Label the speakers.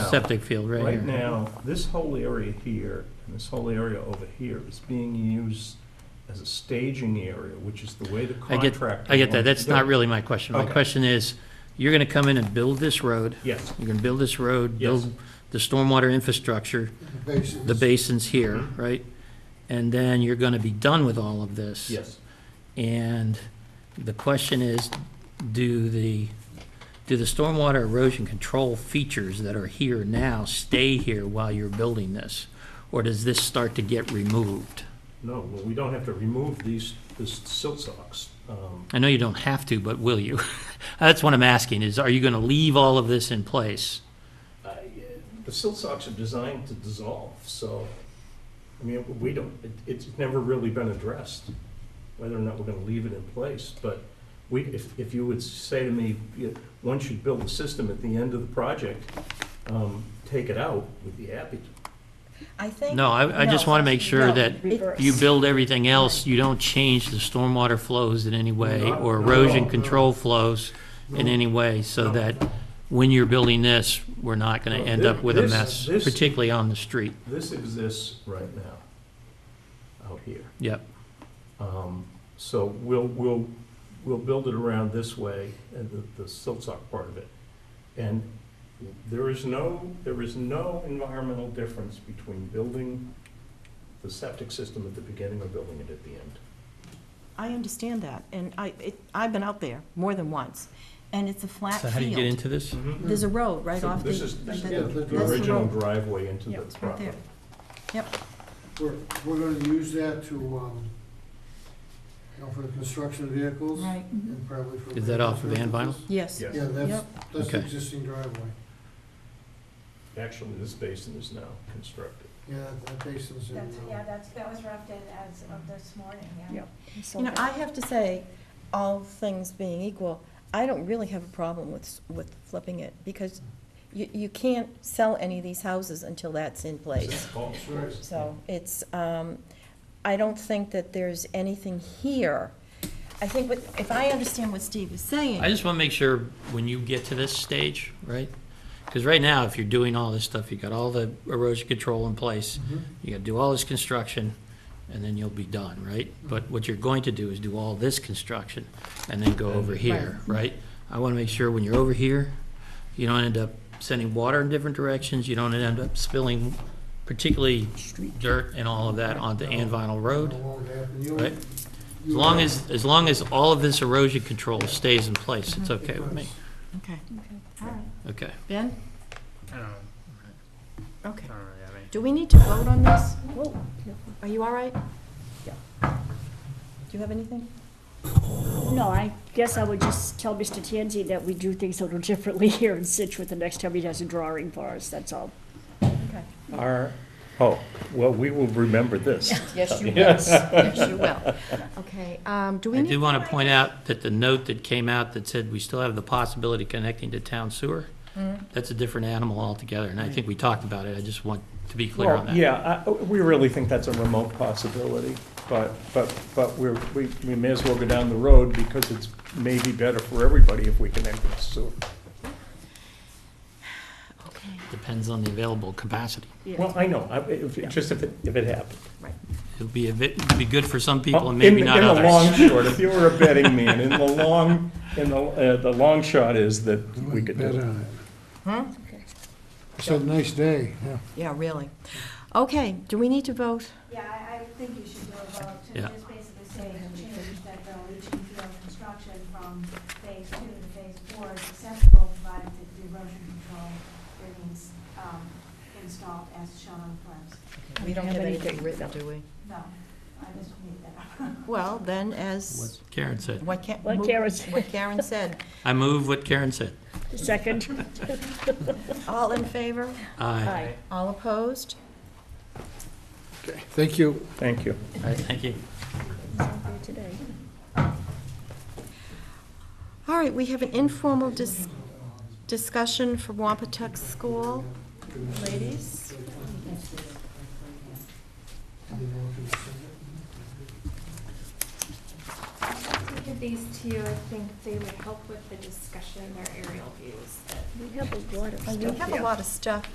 Speaker 1: Septic field, right
Speaker 2: Oh. Right
Speaker 1: here.
Speaker 2: now, this whole area here, and this whole area over here is being used as a staging area, which is the way the
Speaker 1: I get,
Speaker 2: contractor.
Speaker 1: I get that,
Speaker 2: wants
Speaker 1: that's
Speaker 2: to do
Speaker 1: not
Speaker 2: it.
Speaker 1: really my question. My
Speaker 2: Okay.
Speaker 1: question is, you're gonna come in and build this road,
Speaker 2: Yes,
Speaker 1: you're gonna build this road,
Speaker 2: Yes.
Speaker 1: build the stormwater infrastructure,
Speaker 3: Basins.
Speaker 1: the basins here,
Speaker 2: Mm-hmm.
Speaker 1: right? And then you're gonna be done with all of this.
Speaker 2: yes.
Speaker 1: And the question is, do the, do the stormwater erosion control features that are here now stay here while you're building this? Or does this start to get removed?
Speaker 2: No, well, we don't have to remove these, this silt socks. Um,
Speaker 1: I know you don't have to, but will you? That's what I'm asking, is are you going to leave all of this in place?
Speaker 2: I- The silt socks are designed to dissolve, so, I mean, we don't, it- it's never really been addressed, whether or not we're gonna leave it in place, but we, if, if you would say to me, you- once you build the system at the end of the project, um, take it out, we'd be happy to.
Speaker 4: I think.
Speaker 1: No, I, I just want to make sure
Speaker 4: No,
Speaker 1: that
Speaker 4: reverse.
Speaker 1: you build everything else, you don't change the stormwater flows in any way,
Speaker 2: Not-
Speaker 1: or
Speaker 2: not at all,
Speaker 1: erosion
Speaker 2: no.
Speaker 1: control flows in any way, so
Speaker 2: No.
Speaker 1: that when you're building this, we're not going to
Speaker 2: No,
Speaker 1: end
Speaker 2: thi-
Speaker 1: up with a
Speaker 2: this-
Speaker 1: mess,
Speaker 2: this-
Speaker 1: particularly on the street.
Speaker 2: This exists right now, out here.
Speaker 1: Yep,
Speaker 2: Um, So we'll, we'll, we'll build it around this way, and the, the Siltsock part of it. And there is no, there is no environmental difference between building the septic system at the beginning or building it at the end.
Speaker 4: I understand that, and I, it, I've been out there more than once, and it's a flat
Speaker 1: so how do you get
Speaker 4: field.
Speaker 1: into this?
Speaker 2: Mm-hmm.
Speaker 4: There's a road right
Speaker 2: So
Speaker 4: off the.
Speaker 2: This is, this is
Speaker 4: the-
Speaker 3: yeah,
Speaker 2: the-
Speaker 4: that's
Speaker 2: the original
Speaker 4: road.
Speaker 2: driveway into
Speaker 4: Yeah,
Speaker 2: the
Speaker 4: it's right
Speaker 2: property.
Speaker 4: there. Yep,
Speaker 3: We're, we're gonna use that to, um, you know, for the construction of vehicles.
Speaker 4: right,
Speaker 3: And probably for.
Speaker 1: Is that off of Van
Speaker 3: maintenance
Speaker 4: yes.
Speaker 2: Yeah.
Speaker 3: purposes. Yeah, that's,
Speaker 4: Yep.
Speaker 3: that's the
Speaker 1: Okay.
Speaker 3: existing driveway.
Speaker 2: Actually, this basin is now constructed.
Speaker 3: Yeah, that- that basin's in.
Speaker 5: That's,
Speaker 3: um,
Speaker 5: yeah, that's, that was roughed in as of this morning, yeah.
Speaker 4: Yep. You know, I have to say, all things being equal, I don't really have a problem with, s- with flipping it, because you, you can't sell any of these houses until that's in place.
Speaker 2: Oh, sorry.
Speaker 4: So it's, um, I don't think that there's anything here. I think what, if I understand what Steve is saying.
Speaker 1: I just want to make sure when you get to this stage, right? Because right now, if you're doing all this stuff, you got all the erosion control in place,
Speaker 3: Mhm.
Speaker 1: you got to do all this construction, and then you'll be done, right? But what you're going to do is do all this construction and then go over here, right? I want to make sure when you're over here, you don't end up sending water in different directions, you don't end up spilling particularly dirt and all of that onto Anvinal Road.
Speaker 3: That won't happen. You'll-
Speaker 1: Right. As
Speaker 3: you'll-
Speaker 1: long as, as long as all of this erosion control stays in place, it's okay with me,
Speaker 4: Okay.
Speaker 5: All right.
Speaker 1: okay?
Speaker 4: Ben?
Speaker 6: I don't,
Speaker 4: Okay.
Speaker 6: I don't really have any.
Speaker 4: Do we need to vote on this? Whoa, Are you all right? Yeah. Do you have anything?
Speaker 7: No, I guess I would just tell Mr. Tanzi that we do things a little differently here in Situate the next time he does a drawing for us, that's all.
Speaker 4: Okay.
Speaker 2: Our, oh, well, we will remember this.
Speaker 4: Yes, you will. Yes, you will. Okay, um, do we
Speaker 1: I do
Speaker 4: need,
Speaker 1: want to point out that the note that came out that said we still have the possibility of connecting to town sewer,
Speaker 2: Mm-hmm.
Speaker 1: that's a different animal altogether, and I think we talked about it, I just want to be clear on
Speaker 2: Well,
Speaker 1: that.
Speaker 2: yeah, I- we really think that's a remote possibility, but, but, but we're, we, we may as well go down the road because it's maybe better for everybody if we connect with sewer.
Speaker 4: okay,
Speaker 1: Depends on the available capacity.
Speaker 2: Well, I know, I, if, just if it, if it happened.
Speaker 4: right.
Speaker 1: It'll be a bit, it'd be good for some people and
Speaker 2: In-
Speaker 1: maybe not
Speaker 2: In the long
Speaker 1: others.
Speaker 2: short, if you were a betting man, in the long, in the, uh, the long shot is that we could do
Speaker 3: Bet
Speaker 2: it.
Speaker 3: on it. It's a nice day, yeah.
Speaker 4: Yeah, really. Okay, do we need to vote?
Speaker 5: Yeah, I, I think you should do a vote to
Speaker 1: Yeah.
Speaker 5: just basically say to change that the leaching field construction from phase two to phase four is acceptable, provided that the erosion control remains, um, installed as shown on the plans.
Speaker 4: We don't have anything written, do we?
Speaker 5: No, I just made that up.
Speaker 4: Well, then as,
Speaker 1: Karen said,
Speaker 4: what Karen.
Speaker 7: What Karen said.
Speaker 4: What Karen said.
Speaker 1: I move what Karen said.
Speaker 7: Second?
Speaker 4: All in favor?
Speaker 1: Aye.
Speaker 7: Aye.
Speaker 4: All opposed?
Speaker 3: Thank you.
Speaker 2: Thank you.
Speaker 1: All right, thank you.
Speaker 7: Today.
Speaker 4: All right, we have an informal dis- discussion for Wampatuck School. Ladies?
Speaker 8: Look at these two, I think they would help with the discussion, their aerial views that
Speaker 7: Oh, We have a lot of
Speaker 4: We have a lot of stuff